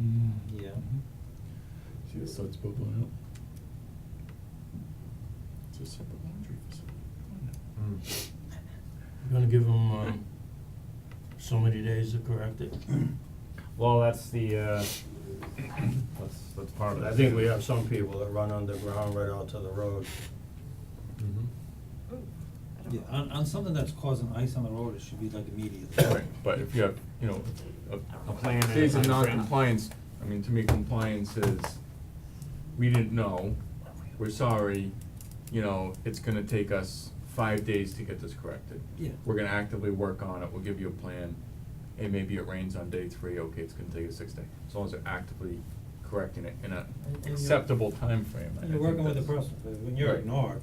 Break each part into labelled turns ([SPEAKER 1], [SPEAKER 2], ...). [SPEAKER 1] Mm-hmm.
[SPEAKER 2] See, it starts bubbling out. It's a separate laundry facility.
[SPEAKER 1] Mm.
[SPEAKER 3] We're gonna give them, um, so many days to correct it.
[SPEAKER 1] Well, that's the, uh, that's, that's part of it.
[SPEAKER 3] I think we have some people that run underground right onto the road.
[SPEAKER 1] Mhm.
[SPEAKER 4] Yeah, on, on something that's causing ice on the road, it should be like immediately.
[SPEAKER 2] Right, but if you have, you know, a.
[SPEAKER 1] A plan and a
[SPEAKER 2] Days of
[SPEAKER 1] timeframe.
[SPEAKER 2] non-compliance, I mean, to me, compliance is, we didn't know, we're sorry, you know, it's gonna take us five days to get this corrected.
[SPEAKER 4] Yeah.
[SPEAKER 2] We're gonna actively work on it, we'll give you a plan, and maybe it rains on day three, okay, it's gonna take you six days, as long as they're actively correcting it in a
[SPEAKER 4] And- and you're-
[SPEAKER 2] acceptable timeframe, I
[SPEAKER 4] And you're
[SPEAKER 2] think
[SPEAKER 4] working with the
[SPEAKER 2] that's-
[SPEAKER 4] person, but when you're
[SPEAKER 2] Right.
[SPEAKER 4] ignored,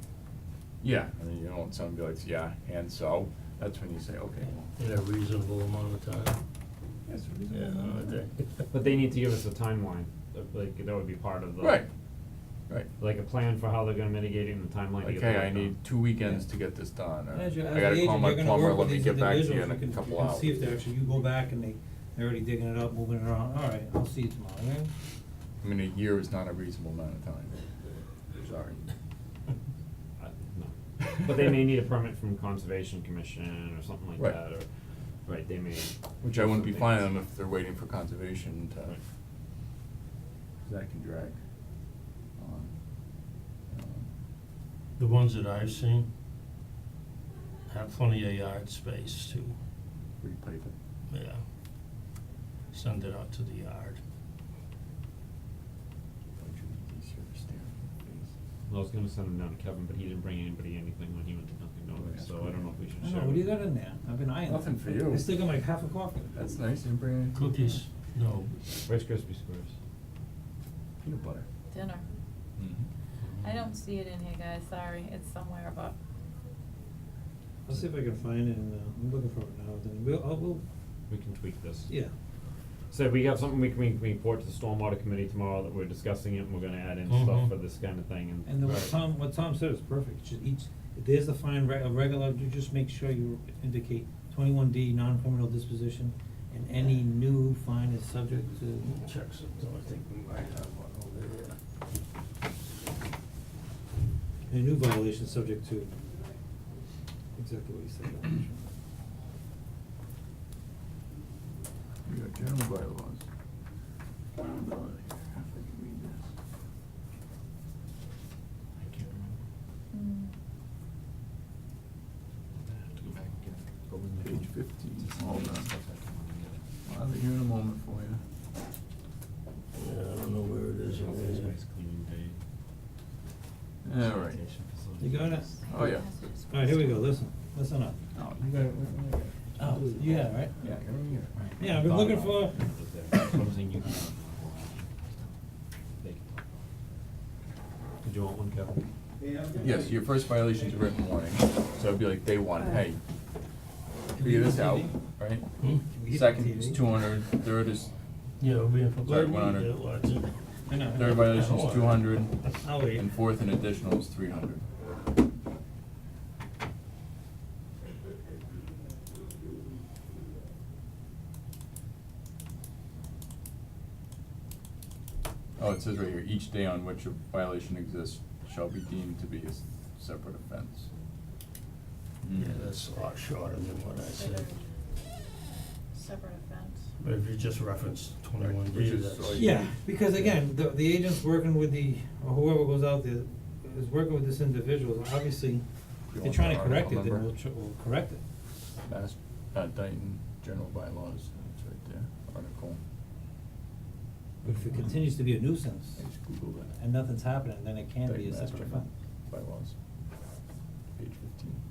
[SPEAKER 2] Yeah, and then you don't want someone to be like, yeah, and so, that's when you say, okay, well,
[SPEAKER 3] In a reasonable amount of time.
[SPEAKER 2] that's a reasonable
[SPEAKER 3] Yeah,
[SPEAKER 2] amount
[SPEAKER 3] I
[SPEAKER 2] of
[SPEAKER 3] think.
[SPEAKER 2] time.
[SPEAKER 1] But they need to give us a timeline, of, like, that would be part of the.
[SPEAKER 2] Right, right.
[SPEAKER 1] Like a plan for how they're gonna mitigate it and the timeline to get the
[SPEAKER 2] Okay,
[SPEAKER 1] work
[SPEAKER 2] I need
[SPEAKER 1] done.
[SPEAKER 2] two weekends
[SPEAKER 4] Yeah.
[SPEAKER 2] to get this done,
[SPEAKER 4] as you,
[SPEAKER 2] or
[SPEAKER 4] as
[SPEAKER 2] I gotta
[SPEAKER 4] an
[SPEAKER 2] call
[SPEAKER 4] agent,
[SPEAKER 2] my
[SPEAKER 4] you're gonna
[SPEAKER 2] plumber,
[SPEAKER 4] work with
[SPEAKER 2] let me
[SPEAKER 4] these
[SPEAKER 2] get back to
[SPEAKER 4] individuals,
[SPEAKER 2] you in
[SPEAKER 4] you
[SPEAKER 2] a
[SPEAKER 4] can, you
[SPEAKER 2] couple
[SPEAKER 4] can
[SPEAKER 2] hours.
[SPEAKER 4] see if they're actually, you go back and they, they're already digging it up, moving it around, alright, I'll see you tomorrow, okay?
[SPEAKER 2] I mean, a year is not a reasonable amount of time, sorry.
[SPEAKER 1] I- no. But they may need a permit from Conservation Commission or something like
[SPEAKER 2] Right.
[SPEAKER 1] that, or, right, they may.
[SPEAKER 2] Which I wouldn't be
[SPEAKER 1] something.
[SPEAKER 2] fine on if they're waiting for conservation to,
[SPEAKER 1] Right.
[SPEAKER 2] 'cause that can drag on. Um,
[SPEAKER 3] The ones that I've seen have plenty of yard space to,
[SPEAKER 2] Repipe it.
[SPEAKER 3] yeah, send it out to the yard.
[SPEAKER 2] Don't you think he's here to stare in the face?
[SPEAKER 1] Well, I was gonna send them down to Kevin, but he didn't bring anybody anything when he went to Dunkin'
[SPEAKER 2] Oh,
[SPEAKER 1] Donuts,
[SPEAKER 2] that's
[SPEAKER 1] so I
[SPEAKER 2] cool.
[SPEAKER 1] don't know if we should
[SPEAKER 4] I
[SPEAKER 1] share.
[SPEAKER 4] don't know, what do you
[SPEAKER 1] with
[SPEAKER 4] got in
[SPEAKER 1] them.
[SPEAKER 4] there? I've been eyeing that.
[SPEAKER 2] Nothing for you.
[SPEAKER 4] I still got like half a coffee.
[SPEAKER 2] That's nice, you didn't bring any
[SPEAKER 3] Cookies, no.
[SPEAKER 1] Rice Krispie Squares.
[SPEAKER 2] peanut butter.
[SPEAKER 5] Dinner.
[SPEAKER 3] Mm-hmm.
[SPEAKER 5] I don't see it in here, guys, sorry, it's somewhere, but
[SPEAKER 4] I'll see if I can find it, and, uh, I'm looking for it now, then we'll, I'll, we'll,
[SPEAKER 1] We can tweak this.
[SPEAKER 4] yeah,
[SPEAKER 1] So we have something we can, we can report to the stormwater committee tomorrow that we're discussing it and we're gonna add
[SPEAKER 2] Mm-hmm.
[SPEAKER 1] in
[SPEAKER 3] Mhm.
[SPEAKER 1] stuff for this kind of thing and.
[SPEAKER 4] and then what
[SPEAKER 3] Right.
[SPEAKER 4] Tom, what Tom said is perfect, just each, if there's the fine reg- a regular, you just make sure you indicate twenty-one D, non-criminal disposition, and any new fine is subject to.
[SPEAKER 3] Check something, I think we might have one over there.
[SPEAKER 4] A new violation subject to, exactly what you said.
[SPEAKER 2] We got general bylaws. I don't know if I can read this.
[SPEAKER 1] I can't remember.
[SPEAKER 5] mm,
[SPEAKER 1] I'm gonna have to go back and get it. But we may-
[SPEAKER 2] Page 15,
[SPEAKER 1] Just
[SPEAKER 2] all
[SPEAKER 1] some of the
[SPEAKER 2] done.
[SPEAKER 1] stuff I can remember.
[SPEAKER 2] I'll have it here in a moment for you.
[SPEAKER 3] Yeah, I don't know where it is over
[SPEAKER 1] Office
[SPEAKER 3] there.
[SPEAKER 1] space cleaning day.
[SPEAKER 2] All right.
[SPEAKER 1] sanitation
[SPEAKER 4] You got it?
[SPEAKER 1] facilities.
[SPEAKER 2] Oh, yeah.
[SPEAKER 4] Alright, here we go, listen, listen up.
[SPEAKER 2] Oh, you got it, what, what,
[SPEAKER 4] Oh, yeah, right?
[SPEAKER 2] yeah, I got it here.
[SPEAKER 4] Yeah, I've been
[SPEAKER 1] Thought
[SPEAKER 4] looking
[SPEAKER 1] about
[SPEAKER 4] for-
[SPEAKER 1] it, it was there. That's what I'm saying, you can talk about it. They can talk about it. Did you want one, Kevin?
[SPEAKER 2] Yes, your first violation's a written warning, so it'd be like day one, hey, figure this out, right?
[SPEAKER 3] Hmm?
[SPEAKER 2] Second is two hundred, third is,
[SPEAKER 3] Yeah, we have.
[SPEAKER 2] Sorry, 100.
[SPEAKER 4] I know.
[SPEAKER 2] third violation is two hundred,
[SPEAKER 4] I'll wait.
[SPEAKER 2] and fourth and additional is three hundred. Oh, it says right here, each day on which a violation exists shall be deemed to be a s- separate offense. Hmm. Mm.
[SPEAKER 3] Yeah, that's a lot shorter than what I said.
[SPEAKER 5] Separate offense.
[SPEAKER 3] But if you just reference twenty-one
[SPEAKER 2] Which
[SPEAKER 3] D,
[SPEAKER 2] is
[SPEAKER 3] that's.
[SPEAKER 2] all you-
[SPEAKER 4] Yeah, because again, the, the agent's working with the, or whoever goes out there, is working with this individual, obviously, if they're
[SPEAKER 2] want
[SPEAKER 4] trying
[SPEAKER 2] the
[SPEAKER 4] to correct
[SPEAKER 2] article
[SPEAKER 4] it, then
[SPEAKER 2] number?
[SPEAKER 4] we'll, tr- we'll correct it.
[SPEAKER 2] Mass, uh, Dayton General Bylaws, it's right there, article.
[SPEAKER 4] But if it continues to be a nuisance,
[SPEAKER 2] I just Googled that.
[SPEAKER 4] and nothing's happening, then it can be
[SPEAKER 2] Dayton
[SPEAKER 4] a
[SPEAKER 2] Mass
[SPEAKER 4] separate
[SPEAKER 2] General
[SPEAKER 4] offense.
[SPEAKER 2] Bylaws, page fifteen.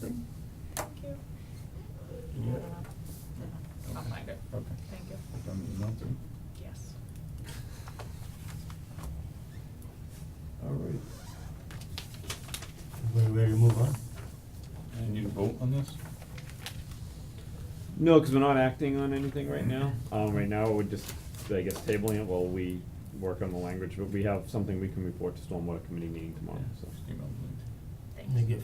[SPEAKER 5] Thank you.
[SPEAKER 2] Yeah.
[SPEAKER 5] No, I'll find it.
[SPEAKER 2] Okay.
[SPEAKER 5] Thank you.
[SPEAKER 2] From the email through.
[SPEAKER 5] Yes.
[SPEAKER 2] All right.
[SPEAKER 3] Everybody ready to move on?
[SPEAKER 2] Do you need a vote on this?
[SPEAKER 1] No, because we're not acting on anything right now. Um, right now, we're just, I guess, tabling it while we work on the language, but we have something we can report to Stormwater Committee meeting tomorrow, so.
[SPEAKER 2] Just email the link.
[SPEAKER 5] Thank
[SPEAKER 3] Let me
[SPEAKER 5] you.
[SPEAKER 3] get